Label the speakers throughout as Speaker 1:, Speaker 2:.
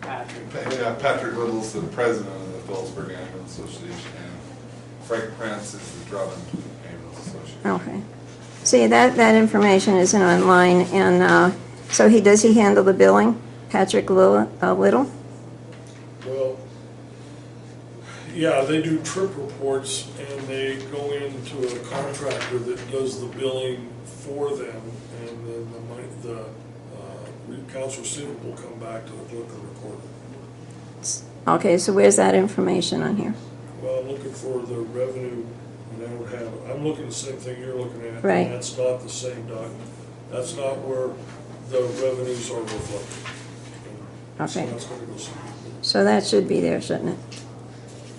Speaker 1: Patrick.
Speaker 2: Yeah, Patrick Little's the president of the Phillipsburg Ambulance Association, and Frank Prince is the Drummond Ambulance Association.
Speaker 3: Okay. See, that, that information isn't online, and uh, so he, does he handle the billing? Patrick Lil- uh, Little?
Speaker 4: Well, yeah, they do trip reports and they go into a contractor that does the billing for them. And then the money, the, uh, accounts receivable come back to the clerk and recorder.
Speaker 3: Okay, so where's that information on here?
Speaker 4: Well, I'm looking for the revenue, and I would have, I'm looking at the same thing you're looking at. and
Speaker 3: Right.
Speaker 4: That's not the same document. That's not where the revenues are reflected. So
Speaker 3: Okay.
Speaker 4: that's gonna go somewhere.
Speaker 3: So that should be there, shouldn't it?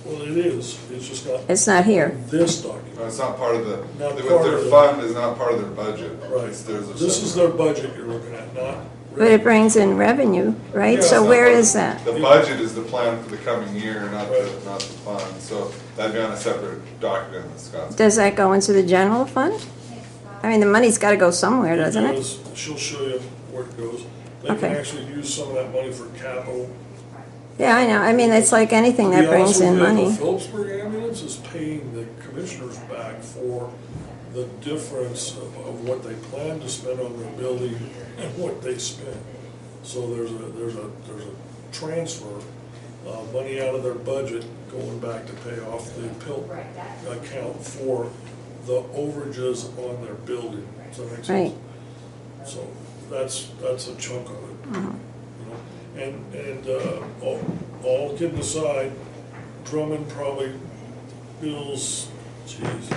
Speaker 4: Well, it is, it's just not
Speaker 3: It's not here.
Speaker 4: this document.
Speaker 2: No, it's not part of the,
Speaker 4: Not
Speaker 2: but
Speaker 4: part
Speaker 2: their
Speaker 4: of the-
Speaker 2: fund is not part of their budget.
Speaker 4: Right,
Speaker 2: It's- there's a
Speaker 4: this is their
Speaker 2: separate-
Speaker 4: budget you're looking at, not.
Speaker 3: But it brings in revenue, right?
Speaker 4: Yeah,
Speaker 3: So
Speaker 2: it's
Speaker 3: where
Speaker 2: not-
Speaker 3: is that?
Speaker 2: The budget is the plan for the coming year, not the,
Speaker 4: Right.
Speaker 2: not the fund, so that'd be on a separate document that Scott's.
Speaker 3: Does that go into the general fund? I mean, the money's got to go somewhere, doesn't it?
Speaker 4: goes- She'll show you where it goes. They can
Speaker 3: Okay.
Speaker 4: actually use some of that money for capital.
Speaker 3: Yeah, I know. I mean, it's like anything
Speaker 4: To be
Speaker 3: that brings
Speaker 4: honest with
Speaker 3: in
Speaker 4: you,
Speaker 3: money.
Speaker 4: The Phillipsburg ambulance is paying the commissioners back for the difference of of what they plan to spend on their building and what they spent. So there's a, there's a, there's a transfer of money out of their budget going back to pay off the pill account for the overages on their building. Does that make sense?
Speaker 3: Right.
Speaker 4: So that's, that's a chunk of it.
Speaker 3: Mm-hmm.
Speaker 4: you know. And, and uh, all- all kidding aside, Drummond probably bills, geez,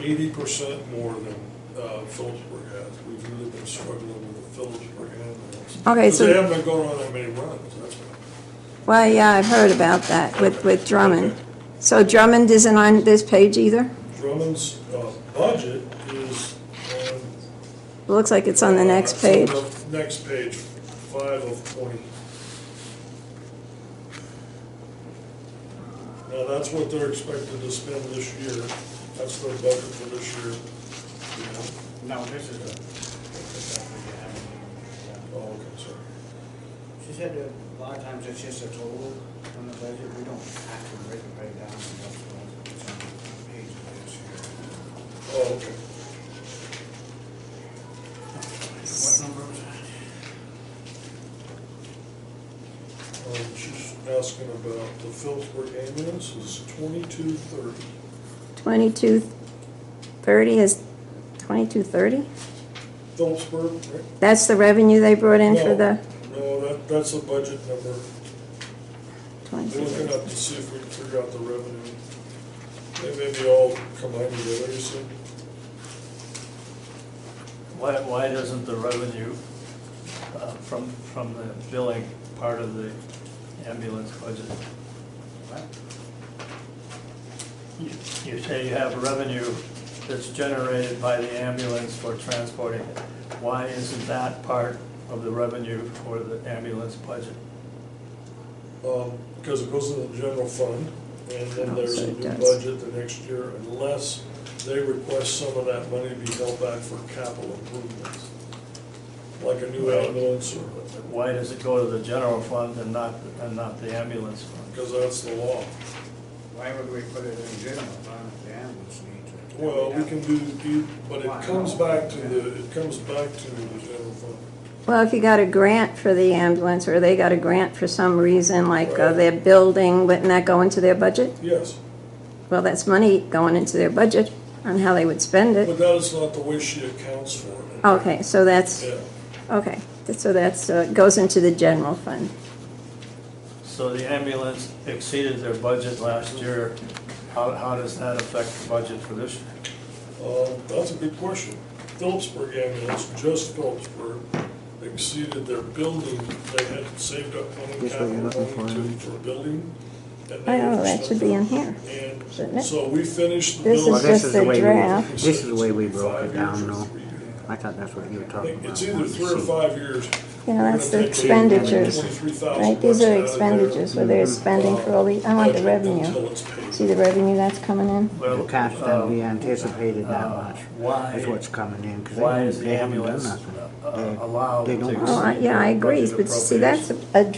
Speaker 4: eighty percent more than uh, Phillipsburg has. We've really been struggling with the Phillipsburg ambulance.
Speaker 3: Okay,
Speaker 4: Because
Speaker 3: so-
Speaker 4: they haven't been going on that many runs, that's why.
Speaker 3: Well, yeah, I've heard about that with, with Drummond.
Speaker 4: Okay.
Speaker 3: So Drummond isn't on this page either?
Speaker 4: Drummond's uh, budget is on.
Speaker 3: Looks like it's on the
Speaker 4: uh,
Speaker 3: next page.
Speaker 4: the Next page, five of twenty. Now, that's what they're expected to spend this year, that's their budget for this year. you know.
Speaker 1: No, this is a.
Speaker 4: Oh, okay, sorry.
Speaker 1: She said that a lot of times it's just a total on the budget, we don't have to break it right down. and that's what it's on the page of this here.
Speaker 4: Oh, okay.
Speaker 1: What number was that?
Speaker 4: Um, she's asking about the Phillipsburg ambulance is twenty-two thirty.
Speaker 3: 2230 is, 2230?
Speaker 4: Phillipsburg, right?
Speaker 3: That's the revenue they brought in for
Speaker 4: No,
Speaker 3: the
Speaker 4: No, that, that's the budget number. We're looking
Speaker 3: 2230?
Speaker 4: up to see if we can figure out the revenue. They may be all combined together, you see?
Speaker 5: Why, why doesn't the revenue uh, from, from the billing part of the ambulance budget? You you say you have revenue that's generated by the ambulance for transporting it. Why isn't that part of the revenue for the ambulance budget?
Speaker 4: Um, because it goes into the general fund, and then
Speaker 3: Oh,
Speaker 4: there's
Speaker 3: so
Speaker 4: a
Speaker 3: it
Speaker 4: new
Speaker 3: does.
Speaker 4: budget the next year, unless they request some of that money be held back for capital improvements. Like a new
Speaker 5: Right.
Speaker 4: ambulance, or,
Speaker 5: Why does it go to the general fund and not, and not the ambulance fund?
Speaker 4: because that's the law.
Speaker 1: Why would we put it in general fund if the ambulance needs it?
Speaker 4: Well, we can do, do, but it comes back to the, it comes back to the general fund.
Speaker 3: Well, if you got a grant for the ambulance, or they got a grant for some reason, like uh,
Speaker 4: Right.
Speaker 3: their building, wouldn't that go into their budget?
Speaker 4: Yes,
Speaker 3: Well, that's money going into their budget on how they would spend
Speaker 4: but
Speaker 3: it.
Speaker 4: that is not the way she accounts for it.
Speaker 3: Uh, Okay, so that's,
Speaker 4: Yeah.
Speaker 3: okay, so that's, uh, goes into the general fund.
Speaker 5: So the ambulance exceeded their budget last year. How, how does that affect the budget for this year?
Speaker 4: Um, That's a good question. Phillipsburg ambulance, just Phillipsburg, exceeded their building. They had saved up money,
Speaker 6: Which one
Speaker 4: capital
Speaker 6: you're looking
Speaker 4: money
Speaker 6: for,
Speaker 4: to,
Speaker 6: Amy?
Speaker 4: for a building. and they
Speaker 3: Oh, that should be in here, shouldn't
Speaker 4: And
Speaker 3: it?
Speaker 4: so we finished the
Speaker 3: This is
Speaker 4: building.
Speaker 6: Well, this
Speaker 3: just
Speaker 6: is
Speaker 3: the
Speaker 6: the way
Speaker 3: draft.
Speaker 6: we, this is the way we broke it down,
Speaker 4: though.
Speaker 6: though. I thought that's what you were
Speaker 4: I
Speaker 6: talking
Speaker 4: think
Speaker 6: about.
Speaker 4: it's either
Speaker 6: wanting to
Speaker 4: three or
Speaker 6: see.
Speaker 4: five years.
Speaker 3: Yeah, that's the
Speaker 4: We're gonna take the
Speaker 3: expenditures,
Speaker 4: 23,000
Speaker 3: right? These
Speaker 4: bucks out
Speaker 3: are
Speaker 4: of
Speaker 3: expenditures where they're spending for all the, I want the
Speaker 4: budget Until
Speaker 3: revenue.
Speaker 4: it's paid.
Speaker 3: See the revenue that's coming in?
Speaker 5: Well,
Speaker 6: The cash
Speaker 5: uh,
Speaker 6: that we anticipated that
Speaker 5: uh,
Speaker 6: much
Speaker 5: why-
Speaker 6: is what's coming in,
Speaker 5: Why
Speaker 6: because
Speaker 5: is
Speaker 6: they,
Speaker 5: the
Speaker 6: they haven't done
Speaker 5: ambulance
Speaker 6: nothing.
Speaker 5: uh,
Speaker 6: They-
Speaker 5: allowed
Speaker 6: they
Speaker 5: to
Speaker 6: don't-
Speaker 3: Oh, I-
Speaker 5: exceed
Speaker 3: yeah, I
Speaker 5: their
Speaker 3: agree,
Speaker 5: budget
Speaker 3: but see, that's
Speaker 5: appropriation?
Speaker 3: a